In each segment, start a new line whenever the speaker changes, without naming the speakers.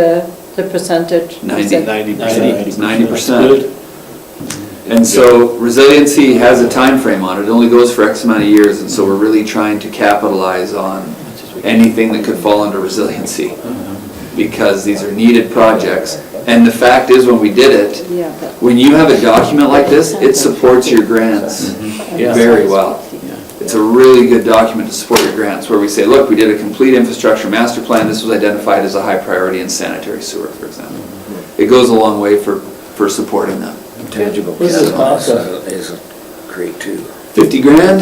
the, the percentage?
Ninety.
Ninety
Ninety.
percent.
It's 90%.
Good.
And so resiliency has a time frame on it, it only goes for X amount of years, and so we're really trying to capitalize on anything that could fall under resiliency, because these are needed projects. And the fact is, when we did it,
Yeah, but.
when you have a document like this, it supports your grants
Mm-hmm.
Yeah.
very well. It's a really good document to support your grants, where we say, look, we did a complete infrastructure master plan, this was identified as a high priority in sanitary sewer, for example. It goes a long way for, for supporting them.
Tangible
This is
capital is
awesome.
is great too.
Fifty grand?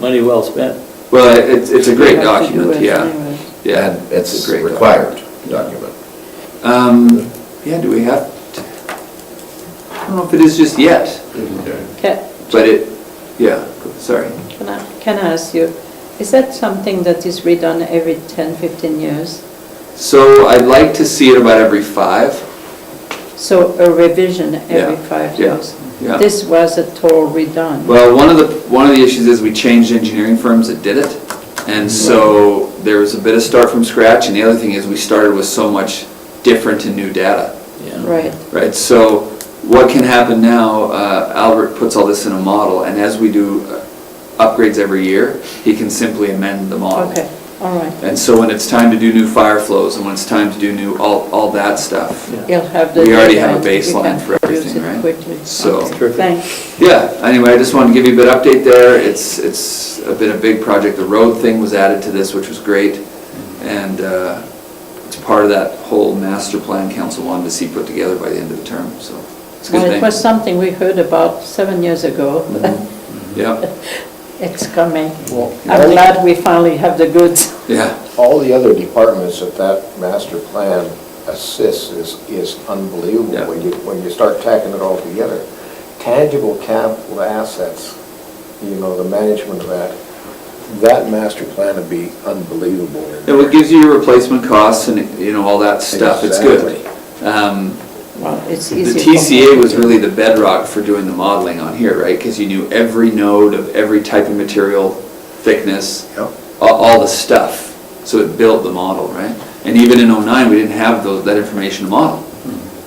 Money well spent.
Well, it- it's, it's a
You
great
have to do
document,
it
yeah,
anyway.
yeah.
And it's
a great
a
document.
required document.
Um, yeah, do we have, to- I don't know if it is just yet,
Ca-
but it, yeah, sorry.
Can I, can I ask you, is that something that is redone every 10, 15 years?
So I'd like to see it about every five.
So a revision every
Yeah,
five
yeah,
years?
yeah.
This was a total redone.
Well, one of the, one of the issues is we changed engineering firms that did it. And so there was a bit of start from scratch, and the other thing is we started with so much different and new data.
Yeah.
Right,
Right, so what can happen now, uh, Albert puts all this in a model, and as we do uh, upgrades every year, he can simply amend the model.
okay, all right.
And so when it's time to do new fire flows, and when it's time to do new, all, all that stuff,
Yeah.
You'll have the.
we already have a
data, you can
baseline for
use
everything,
it
right?
quickly.
So-
Okay,
Terrific.
Thanks.
Yeah, anyway, I just wanted to give you a bit of update there, it's, it's been a big project, the road thing was added to this, which was great, and uh, it's part of that whole master plan council wanted to see put together by the end of the term, so it's a good
Well,
thing.
it
Mm-hmm.
was something we heard about seven years ago.
Yeah.
It's coming.
Well,
I'm glad we finally have the goods.
Yeah,
All the other departments that that master plan assists is, is unbelievable
Yeah.
when you, when you start tacking it all together. Tangible capital assets, you know, the management of that, that master plan would be unbelievable.
and what gives you your replacement costs and, you know, all that stuff, it's good. Um,
Well, it's
The
easy.
TCA was really the bedrock for doing the modeling on here, right? Because you knew every node of every type of material, thickness,
Yep.
all, all the stuff. So it built the model, right? And even in '09, we didn't have those, that information to model.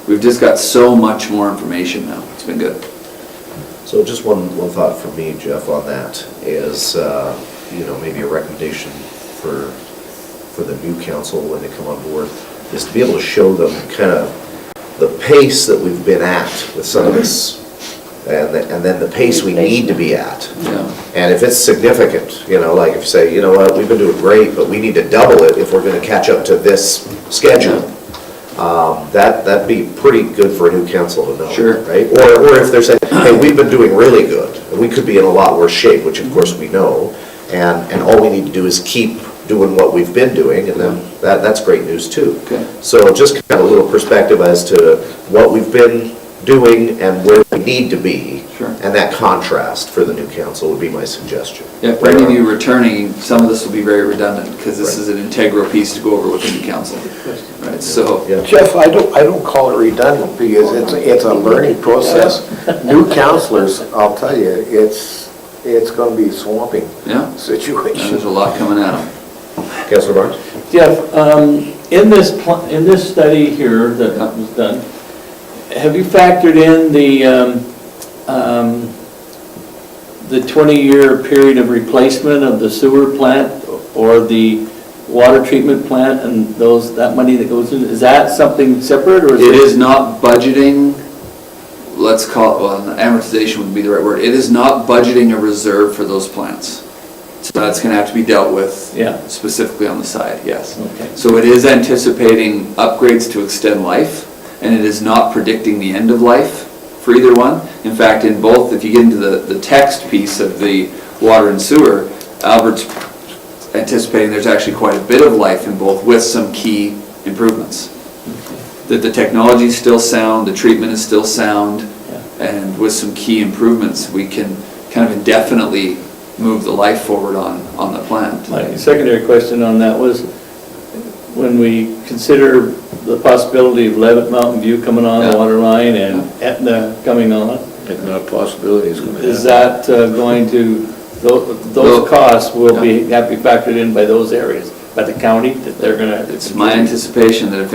We've just got so much more information now, it's been good.
So just one, one thought from me, Jeff, on that is, uh, you know, maybe a recommendation for, for the new council when they come on board, is to be able to show them kind of the pace that we've been at with some of this, and, the- and then the pace we need to be at.
Yeah.
And if it's significant, you know, like if you say, you know what, we've been doing great, but we need to double it if we're gonna catch up to this schedule. Um, That, that'd be pretty good for a new council to know.
Sure.
Right? Or, or if they're saying, hey, we've been doing really good, and we could be in a lot worse shape, which of course we know, and, and all we need to do is keep doing what we've been doing, and then, that, that's great news too.
Okay.
So just kind of a little perspective as to what we've been doing and where we need to be.
Sure.
And that contrast for the new council would be my suggestion.
Yeah, for any of you returning, some of this will be very redundant, because this is an integral piece to go over with the new council. Right, so,
Yeah.
Jeff, I don't, I don't call it redundant because it's, it's a learning process. New counselors, I'll tell you, it's, it's gonna be swamping
yeah, and
situation.
there's a lot coming at 'em.
Councilor Barnes?
Jeff, um, in this, pl- in this study here that was done, have you factored in the, um, um, the 20-year period of replacement of the sewer plant or the water treatment plant and those, that money that goes in? Is that something separate or is it?
It is not budgeting, let's call it, well, amortization would be the right word. It is not budgeting a reserve for those plants. So that's gonna have to be dealt with.
Yeah.
Specifically on the side, yes.
Okay.
So it is anticipating upgrades to extend life, and it is not predicting the end of life for either one. In fact, in both, if you get into the, the text piece of the water and sewer, Albert's anticipating there's actually quite a bit of life in both with some key improvements that the technology's still sound, the treatment is still sound, and with some key improvements, we can kind of indefinitely move the life forward on, on the plant.
My secondary question on that was, when we consider the possibility of Levitt Mountain View coming on
Yeah.
the water line and Etna coming on,
It's not a possibility, it's gonna
is
happen.
that uh, going to, tho-
Well-
those costs will be,
Yeah.
have to be factored in by those areas?
by the county that they're gonna.
It's my anticipation that if